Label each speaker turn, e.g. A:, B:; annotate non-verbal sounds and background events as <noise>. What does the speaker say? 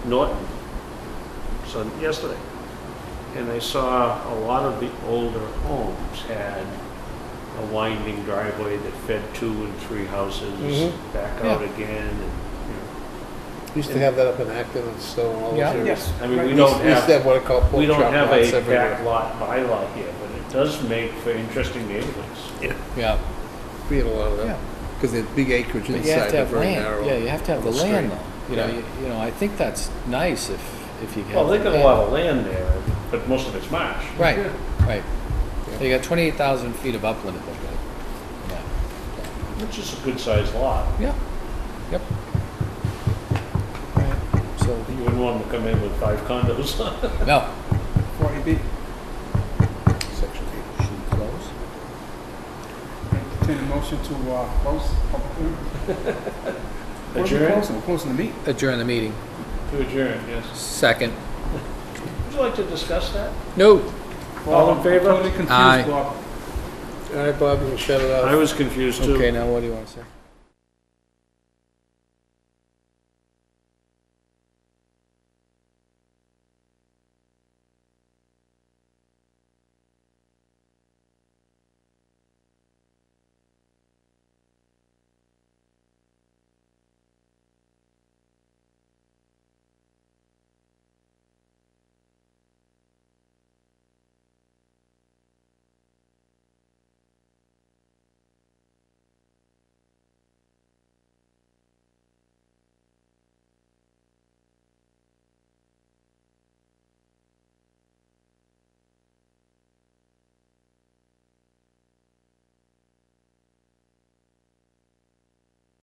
A: Norton son yesterday. And I saw a lot of the older homes had a winding driveway that fed two and three houses,
B: Mhm.
A: back out again. and,
B: Used to have that up in Acton and Stone, all those
C: Yeah.
B: areas.
C: Yes.
A: you know. I mean, we don't
C: Right.
B: We used to
A: have,
B: have what I call
A: we
B: pork
A: don't
B: chop
A: have
B: lots
A: a
B: everywhere.
A: backlot bylaw here, but it does make for interesting neighborhoods.
C: Yeah,
B: We had a lot of that,
C: yeah.
B: because there's big acreage
C: But you have
B: inside,
C: to
B: they're
C: have
B: very narrow.
C: land. Yeah, you have to have the
B: little
C: land
B: street.
C: though. You know,
B: Yeah.
C: you, you know, I think that's nice if, if you have.
A: Well, they
C: the
A: got a
C: land.
A: lot of land there, but most of it's marsh.
C: Right,
B: Yeah.
C: right.
B: Yeah.
C: They got twenty-eight thousand feet of upland at that point.
A: Which is a good sized lot.
C: Yeah, yep. Right. So,
A: You wouldn't want them to come in with five condos <laughs>
C: no.
D: Forty B,
B: Section eight.
C: Should we close?
D: entertain a motion to, uh, close public hearing. What are we
A: Adjourn?
D: closing? We're closing the meeting.
C: Adjourn the meeting.
A: to adjourn, yes.
C: Second.
A: Would you like to discuss that?
C: No.
A: All in favor?
D: Totally confused,
C: Aye.
D: Bob.
B: All right, Bob, you can shut it off.
A: I was confused too.
C: Okay, now what do you want to say?